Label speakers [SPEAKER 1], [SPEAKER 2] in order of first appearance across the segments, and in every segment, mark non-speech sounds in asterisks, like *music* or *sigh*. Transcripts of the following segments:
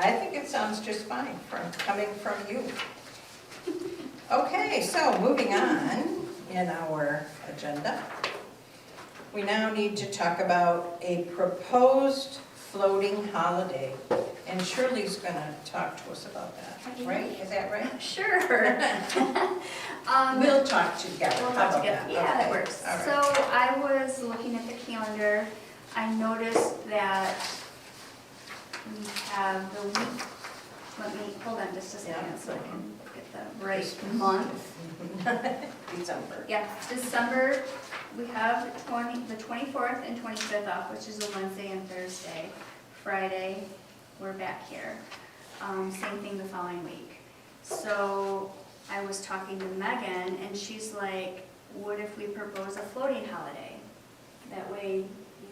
[SPEAKER 1] I think it sounds just fine from, coming from you. Okay, so moving on in our agenda. We now need to talk about a proposed floating holiday. And Shirley's gonna talk to us about that, right? Is that right?
[SPEAKER 2] *laughs* Sure. Um,
[SPEAKER 1] *laughs* We'll talk together.
[SPEAKER 2] We'll talk
[SPEAKER 1] How about
[SPEAKER 2] together. Yeah,
[SPEAKER 1] Okay,
[SPEAKER 2] that works.
[SPEAKER 1] all right.
[SPEAKER 2] So I was looking at the calendar, I noticed that we have the week, let me, hold on just a
[SPEAKER 1] Yeah.
[SPEAKER 2] second so I can get the right month.
[SPEAKER 1] *laughs* December.
[SPEAKER 2] Yeah, December, we have the twenty, the twenty-fourth and twenty-fifth off, which is a Wednesday and Thursday. Friday, we're back here. Um, same thing the following week. So I was talking to Megan and she's like, what if we propose a floating holiday? That way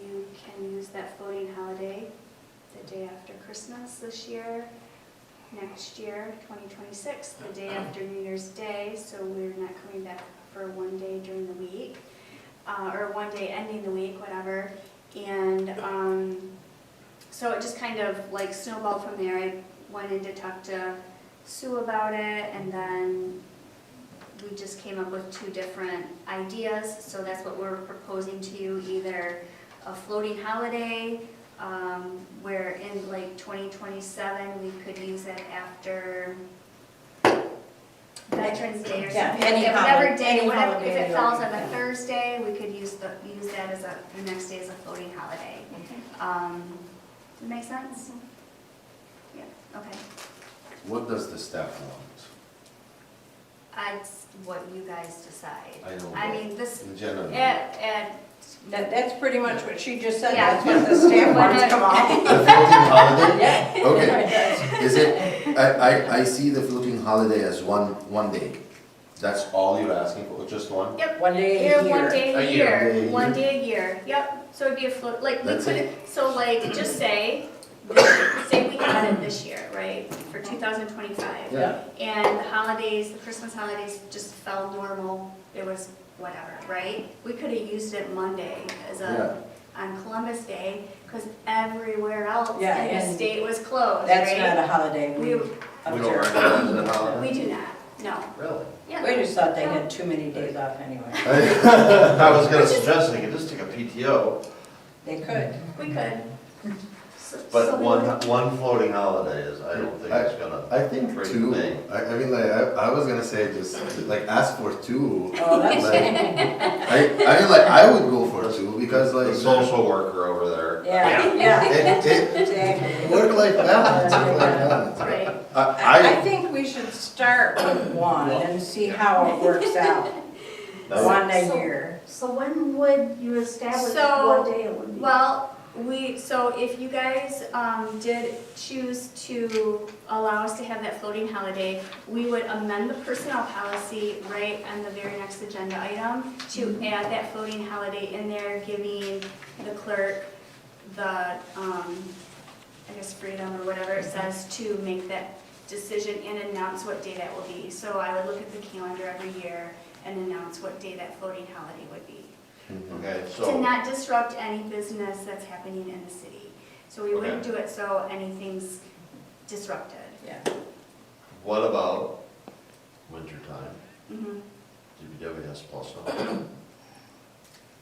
[SPEAKER 2] you can use that floating holiday the day after Christmas this year, next year, 2026, the day after New Year's Day, so we're not coming back for one day during the week, uh, or one day ending the week, whatever. And um, so it just kind of like snowballed from there. I went in to talk to Sue about it, and then we just came up with two different ideas. So that's what we're proposing to you, either a floating holiday, um, where in like 2027, we could use it after Veterans Day or
[SPEAKER 1] Yeah,
[SPEAKER 2] something.
[SPEAKER 1] any
[SPEAKER 2] Yeah, Whatever
[SPEAKER 1] holiday- any
[SPEAKER 2] day, whatever, if
[SPEAKER 1] holiday,
[SPEAKER 2] it falls on
[SPEAKER 1] yeah.
[SPEAKER 2] a Thursday, we could use the, use that as a, the next day as a floating holiday. Um, does it make sense? Yeah, okay.
[SPEAKER 3] What does the staff want?
[SPEAKER 2] That's what you guys decide.
[SPEAKER 3] I don't
[SPEAKER 2] I
[SPEAKER 3] know.
[SPEAKER 2] mean, this,
[SPEAKER 3] In
[SPEAKER 2] it,
[SPEAKER 3] general,
[SPEAKER 2] it,
[SPEAKER 1] That, that's pretty much what she just said,
[SPEAKER 2] Yeah.
[SPEAKER 1] that's what the
[SPEAKER 2] *laughs*
[SPEAKER 1] staff wants come
[SPEAKER 3] the
[SPEAKER 1] on.
[SPEAKER 3] floating holiday,
[SPEAKER 1] *laughs* Yeah.
[SPEAKER 3] okay, is it, I, I, I see the floating holiday as one, one day. That's all you're asking for, just one?
[SPEAKER 1] One day
[SPEAKER 2] yeah,
[SPEAKER 1] a
[SPEAKER 2] one
[SPEAKER 1] year.
[SPEAKER 2] day
[SPEAKER 3] A
[SPEAKER 2] a
[SPEAKER 3] year.
[SPEAKER 2] year,
[SPEAKER 3] Yeah,
[SPEAKER 2] one
[SPEAKER 3] yeah.
[SPEAKER 2] day a year, yep, so it'd be a float, like, we
[SPEAKER 3] That's
[SPEAKER 2] could,
[SPEAKER 3] it.
[SPEAKER 2] so like, just say, say we had it this year, right, for two thousand twenty-five.
[SPEAKER 1] Yeah.
[SPEAKER 2] and the holidays, the Christmas holidays just fell normal, it was whatever, right? We could have used it Monday as a, on Columbus Day, because everywhere else in
[SPEAKER 1] Yeah,
[SPEAKER 2] the
[SPEAKER 1] and
[SPEAKER 2] state was closed,
[SPEAKER 1] That's not
[SPEAKER 2] right?
[SPEAKER 1] a holiday we
[SPEAKER 2] We,
[SPEAKER 3] We don't
[SPEAKER 1] observe.
[SPEAKER 3] recognize it as a holiday?
[SPEAKER 2] we do not, no,
[SPEAKER 3] Really?
[SPEAKER 1] We
[SPEAKER 2] yeah.
[SPEAKER 1] just thought they had too many days off anyway.
[SPEAKER 4] I was
[SPEAKER 1] *laughs*
[SPEAKER 4] gonna suggest they could just take a PTO,
[SPEAKER 1] They *laughs* could.
[SPEAKER 2] We could. So- so
[SPEAKER 4] but
[SPEAKER 2] we
[SPEAKER 4] one,
[SPEAKER 2] would-
[SPEAKER 4] one floating holiday is, I don't think it's gonna.
[SPEAKER 5] I think
[SPEAKER 4] Great
[SPEAKER 5] two.
[SPEAKER 4] thing.
[SPEAKER 5] I, I mean, like I, I was gonna say just like ask for two.
[SPEAKER 1] Oh, that's,
[SPEAKER 5] Like, I, I mean, like I would go for two because
[SPEAKER 4] The
[SPEAKER 5] like
[SPEAKER 4] social worker over there.
[SPEAKER 1] yeah, yeah,
[SPEAKER 5] it, it
[SPEAKER 1] exactly.
[SPEAKER 5] work like balance. Work like balance.
[SPEAKER 2] Right,
[SPEAKER 1] I I
[SPEAKER 5] I,
[SPEAKER 1] think we should start with one and see how it works out.
[SPEAKER 4] *laughs*
[SPEAKER 1] One a
[SPEAKER 6] So-
[SPEAKER 1] year.
[SPEAKER 6] So when would you establish
[SPEAKER 2] So,
[SPEAKER 6] what day it would be?
[SPEAKER 2] well, we, so if you guys, um, did choose to allow us to have that floating holiday, we would amend the personnel policy right on the very next agenda item to add that floating holiday in there, giving the clerk the, um, I guess freedom or whatever it says to make that decision and announce what day that will be. So I would look at the calendar every year and announce what day that floating holiday would be
[SPEAKER 4] Okay,
[SPEAKER 2] to
[SPEAKER 4] so,
[SPEAKER 2] not disrupt any business that's happening in the city. So we wouldn't do it so anything's disrupted.
[SPEAKER 1] Yeah.
[SPEAKER 4] what about wintertime,
[SPEAKER 2] Mhm.
[SPEAKER 4] DPWS plus one?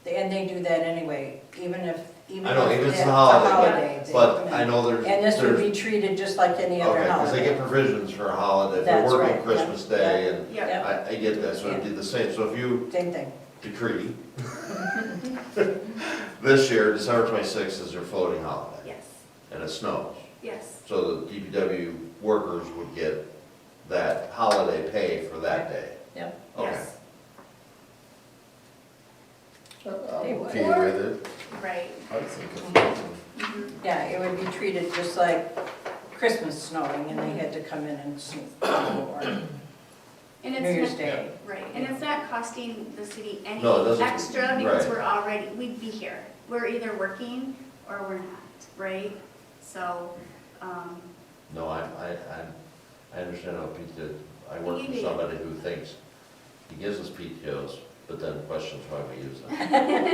[SPEAKER 1] And they do that anyway, even if, even
[SPEAKER 4] I know,
[SPEAKER 1] if
[SPEAKER 4] even if it's
[SPEAKER 1] it's a
[SPEAKER 4] a holiday,
[SPEAKER 1] holiday. they-
[SPEAKER 4] But I know there's,
[SPEAKER 1] And this
[SPEAKER 4] there's,
[SPEAKER 1] would
[SPEAKER 4] okay,
[SPEAKER 1] be treated just like any other
[SPEAKER 4] because they get
[SPEAKER 1] holiday.
[SPEAKER 4] provisions for a holiday, if they're
[SPEAKER 1] That's
[SPEAKER 4] working
[SPEAKER 1] right, yeah,
[SPEAKER 4] Christmas Day, and
[SPEAKER 2] Yeah,
[SPEAKER 1] yeah.
[SPEAKER 4] I, I get that, so it'd be the same, so if you
[SPEAKER 1] Same thing. *laughs*
[SPEAKER 4] decree *laughs* this year, December twenty-sixth is their floating holiday,
[SPEAKER 2] yes,
[SPEAKER 4] and it snows.
[SPEAKER 2] yes,
[SPEAKER 4] So the DPW workers would get that holiday pay for that day.
[SPEAKER 1] Yep.
[SPEAKER 4] Okay.
[SPEAKER 2] yes,
[SPEAKER 1] They would.
[SPEAKER 5] okay with it.
[SPEAKER 2] right.
[SPEAKER 5] I think it's-
[SPEAKER 2] Mhm.
[SPEAKER 1] Yeah, it would be treated just like Christmas snowing and they had to come in and snow or
[SPEAKER 2] And
[SPEAKER 1] New
[SPEAKER 2] it's
[SPEAKER 1] Year's
[SPEAKER 2] not,
[SPEAKER 1] Day.
[SPEAKER 2] right, and it's not costing the city any
[SPEAKER 4] No, it doesn't-
[SPEAKER 2] extra because
[SPEAKER 4] right.
[SPEAKER 2] we're already, we'd be here. We're either working or we're not, right? So, um,
[SPEAKER 4] No, I, I, I'm- I understand how PTO, I work for
[SPEAKER 2] You do.
[SPEAKER 4] somebody who thinks he gives us PTOs, but then questions why we use them.